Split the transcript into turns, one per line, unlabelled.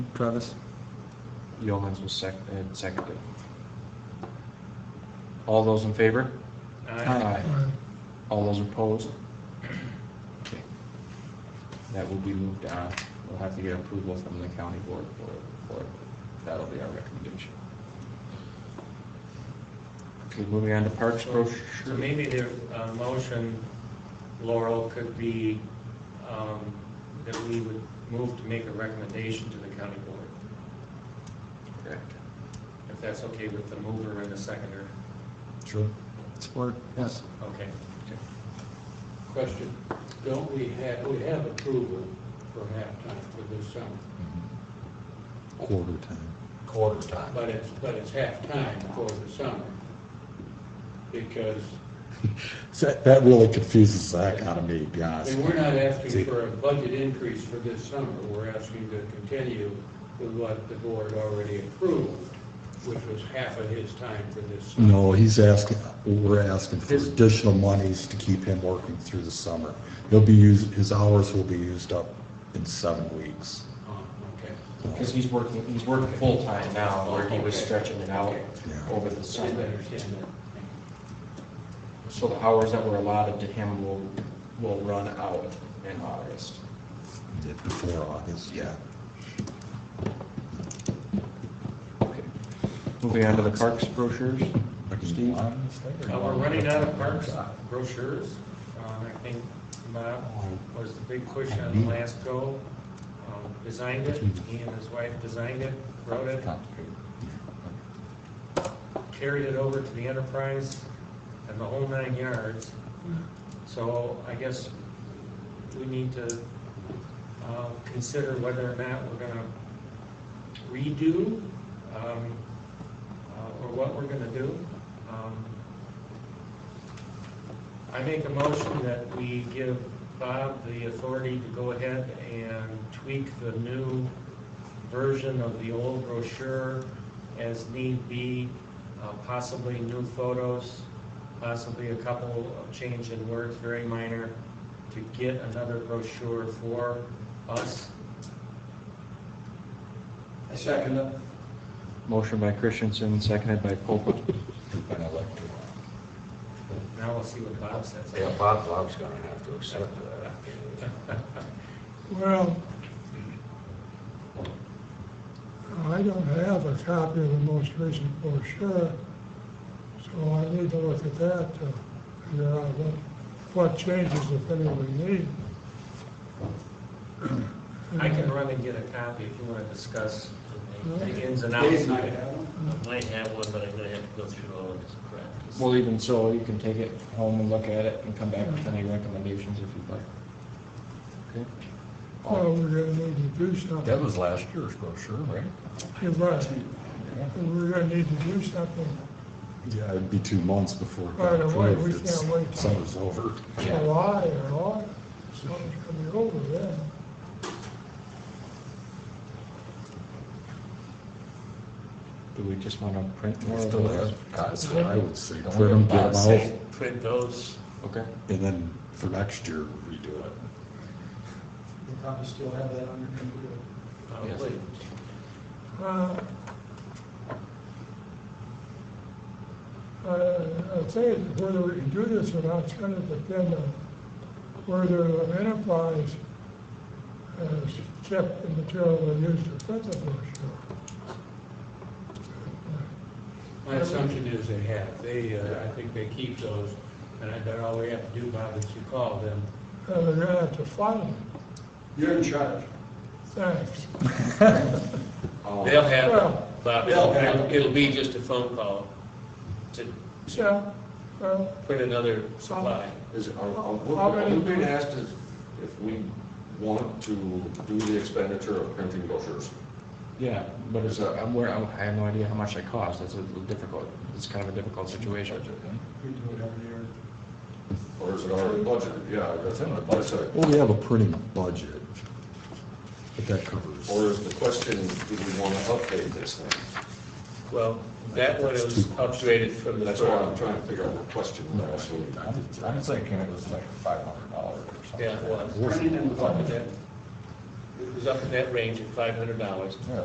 Travis?
Yeomans was sec, and seconded. All those in favor?
Uh,
Ah,
Aye.
All those opposed? Okay. That will be moved on. We'll have to get approval from the county board for, for, it. that'll be our recommendation. Okay, moving on to Parks
So
brochure.
maybe the uh, motion, Laurel, could be um, that we would move to make a recommendation to the county board,
Correct.
if that's okay with the mover and the seconder.
Sure.
Support, yes.
Okay.
Question, don't we have, we have approval for halftime for this summer,
quarter time.
quarter time.
but it's, but it's halftime for the summer. Because,
So That really confuses Zach out of me, to be
I
honest.
mean, we're not asking for a budget increase for this summer, we're asking to continue with what the board already approved, which was half of his time for this summer.
No, he's asking, we're asking for additional monies to keep him working through the summer. He'll be used, his hours will be used up in seven weeks.
Oh, Okay.
Because he's working, he's working full-time now, where he was stretching it out over the
I
summer.
understand that.
So the hours that were allotted to him will, will run out in August.
Yeah, Before August, yeah.
Okay. Moving on to the parks brochures. Steve?
Oh,
Uh, We're running out of parks brochures. Um, I think Bob was the big push on the last go, um, designed it, he and his wife designed it, wrote it, carried it over to the enterprise and the whole nine yards. So I guess we need to uh, consider whether or not we're going to redo um, uh, or what we're going to do. Um, I make a motion that we give Bob the authority to go ahead and tweak the new version of the old brochure as need be, uh, possibly new photos, possibly a couple of change in words, very minor, to get another brochure for us.
I second it.
Motion by Christensen, seconded by Pope.
Now we'll see what Bob says.
Yeah, Bob, Bob's gonna have to accept that.
Well, I don't have a copy of the most recent brochure, so I need to look at that to figure out what, what changes, if any, we need.
I can run and get a copy if you want to discuss the ins and outs.
Dave might have one.
I might have one, but I'm gonna have to go through all of this practice.
Well, even so, you can take it home and look at it and come back with any recommendations if you'd like. Okay.
Well, Oh, we're gonna need to do
That
something.
was last year's brochure, right?
You're right. We're gonna need to do something
Yeah, it'd be two months before. it got
Right away, we
approved. It's-
can't wait.
Summer's over.
July or August, summer's gonna be over then.
Do we just want to print more of
Still
those?
has- God,
That's what I would say.
Don't
Print 'em,
we
get
have
'em
Bob
out,
say-
Print those,
Okay.
and then for next year, redo it.
You probably still have that on your computer.
probably.
Uh, I I think whether we can do this or not, it's going to depend on whether the enterprise has kept the material they used to print the brochure.
My assumption is they have. They, uh, I think they keep those, and I bet all we have to do, Bob, is to call them.
And they're going to have to find it.
You're in charge.
Thanks.
Oh.
Um,
They'll have,
Well,
Bob,
They'll have-
it'll be just a phone call to
yeah, well,
put another supply.
Is, are, are
How
we're- are
many-
we being asked if, if we want to do the expenditure of printing brochures?
Yeah, but it's, a- I'm, where, I have no idea how much they cost. That's a little difficult, it's kind of a difficult situation.
We do it every year.
Or is it already budgeted? Yeah, that's in the budget.
Well, we have a printing budget, but that covers.
Or is the question, do we want to update this thing?
Well, that one was upgraded from the.
That's why I'm trying to figure out what question
No,
we're asking.
I'm I'm thinking it was like five hundred dollars or something.
Yeah, it was.
Wasn't
It was up in that range at five hundred dollars.
Yeah,